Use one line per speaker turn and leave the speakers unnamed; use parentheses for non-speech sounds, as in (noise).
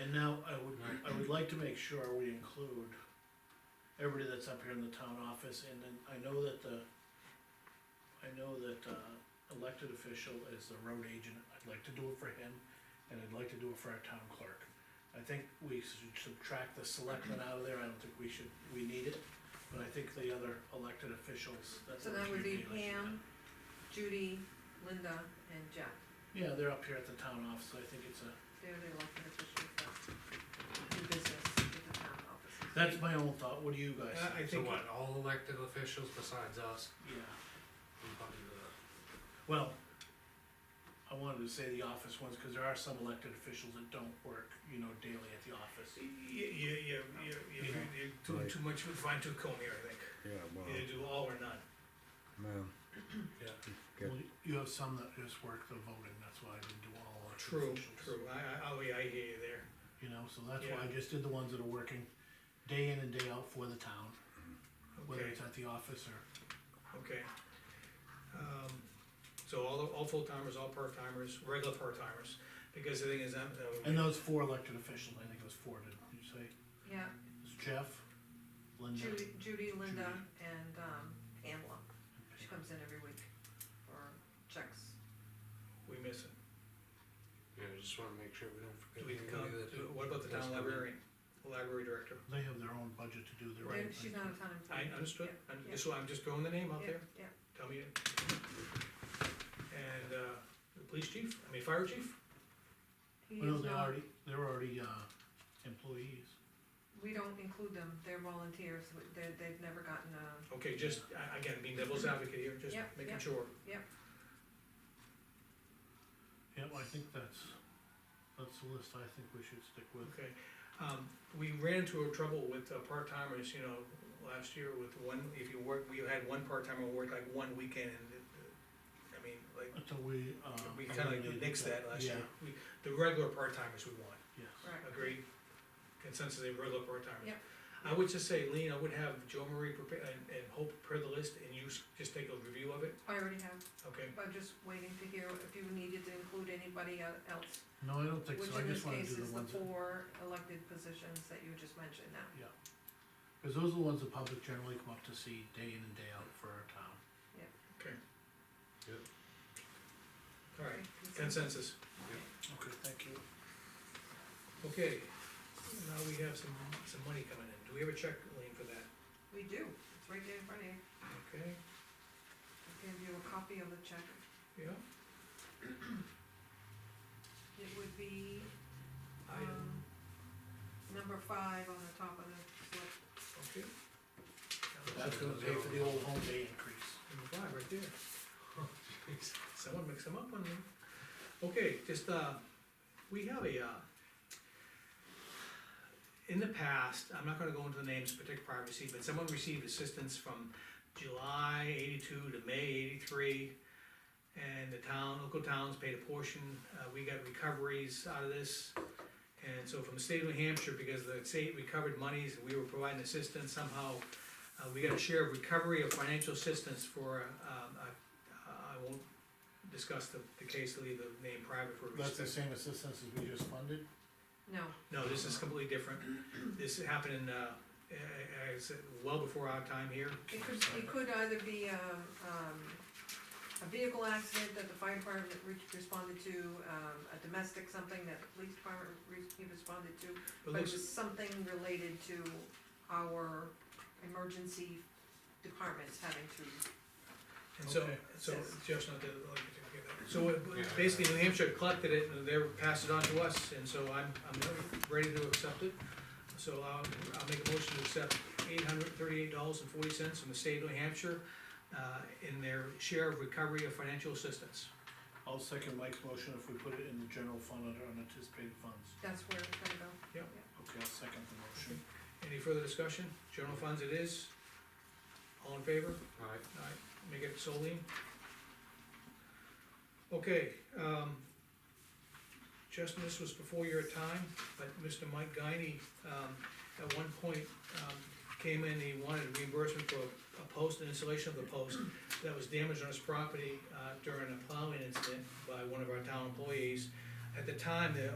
And now I would,
Right.
I would like to make sure we include everybody that's up here in the town office, and then I know that the, I know that, uh, elected official is the road agent, I'd like to do it for him, and I'd like to do it for our town clerk. I think we should subtract the selectmen out of there, I don't think we should, we need it, but I think the other elected officials, that's.
So
the
that would be
community election.
Pam, Judy, Linda, and Jeff,
Yeah, they're up here at the town office, I think it's a,
they're the elected officials that do business with the town offices.
that's my own thought, what do you guys
I- Uh, I
think?
So what, all elected officials besides us?
Yeah.
and probably the-
Well, I wanted to say the office ones, cause there are some elected officials that don't work, you know, daily at the office.
You, you, you, you, you, you're doing too much with a fine tooth comb here, I think.
Yeah, well,
Either do all or none.
man, Good.
Well, You have some that just work the voting, that's why I didn't do all elected
True,
officials.
true, I, I, oh, yeah, I hear you there.
You know, so that's why I
Yeah.
just did the ones that are working day in and day out for the town, whether
Okay,
it's at the office or,
okay. Um, so all, all full timers, all part timers, regular part timers, because the thing is, I'm, uh,
and those four elected officials, I think it was four, did you say?
Yeah,
It was Jeff, Linda.
Judy, Judy, Linda,
Judy.
and, um, Pamela,
and
she
Pam.
comes in every week for checks.
we miss it.
Yeah, I just wanna make sure we don't
Do
forget.
we
anybody
come,
that-
do- what about the
that's
town
coming.
librarian, library director?
They have their own budget to do their own
They're-
thing.
She's not a town employee.
I understood,
Yeah,
and just, so I'm just throwing the name out
yeah,
there,
Yeah,
tell me. it. And, uh, the police chief, I mean, fire chief,
he
Well,
is
they
not,
already, they're already, uh, employees.
we don't include them, they're volunteers, We- they, they've never gotten a,
okay, just, I- again, being devil's advocate here, just
Yeah, yeah.
making sure.
Yeah, well, I think that's, that's the list I think we should stick with.
Okay, um, we ran into a trouble with uh, part-timers, you know, last year with one, if you work, we had one part-timer work like one weekend and, it- it- I mean, like,
Until we, uh.
we kinda like
eliminated
nixed that last year.
Yeah,
We, the regular part-timers we want,
Yes,
right,
agreed? Consensus, they regular part-timers.
Yep.
I would just say, Lean, I would have Joe Marie prepare, and, and Hope prepare the list and you s- just take a review of it,
I already have,
okay?
I'm just waiting to hear if you needed to include anybody el- else.
no, I don't think
Which
so, I
in this
just wanna
case
do
is the
the ones, that-
four elected positions that you just mentioned now.
cause those are the ones the public generally come up to see day in and day out for our town.
All right,
Okay,
consensus.
Okay, thank you.
Okay, now we have some, some money coming in. Do we have a check, Lean, for that?
We do, it's right there in front of you,
Okay,
I'll give you a copy of the check.
yeah.
It would be,
Item,
um, number five on the top of the slip.
okay.
That's gonna pay for the old home day increase.
Number five, right there. (laughs) Oh, jeez. Someone mix them up on me. Okay, just, uh, we have a, uh, in the past, I'm not gonna go into the names, protect privacy, but someone received assistance from July eighty-two to May eighty-three. And the town, local towns paid a portion, uh, we got recoveries out of this. And so from the state of New Hampshire, because the state recovered monies, we were providing assistance somehow, uh, we got a share of recovery of financial assistance for, um, I, I won't discuss the, the case, leave the name private for
That's the
respect.
same assistance as we just funded?
No,
No, this is completely different. This happened in, uh, eh, eh, it's well before our time here.
it could, it could either be, um, um, a vehicle accident that the fire department re- responded to, um, a domestic something that the police department re- responded to.
But
But it
looks-
was something related to our emergency departments having to,
And so,
Okay.
so,
Yes.
Jeff's not the, like, okay, so
Yeah.
it- basically New Hampshire collected it and they passed it on to us, and so I'm, I'm ready to accept it. So I'll, I'll make a motion to accept eight hundred thirty-eight dollars and forty cents from the state of New Hampshire, uh, in their share of recovery of financial assistance.
I'll second Mike's motion if we put it in the general fund under unanticipated funds.
that's where it's gonna go.
Okay, I'll second the motion.
Any further discussion? General funds it is. All in favor?
Alright,
Alright, make it solely. Okay, um, Justin, this was before your time, but Mr. Mike Guiney, um, at one point, um, came in, he wanted reimbursement for a post, and installation of the post that was damaged on his property, uh, during a plowing incident by one of our town employees. At the time, the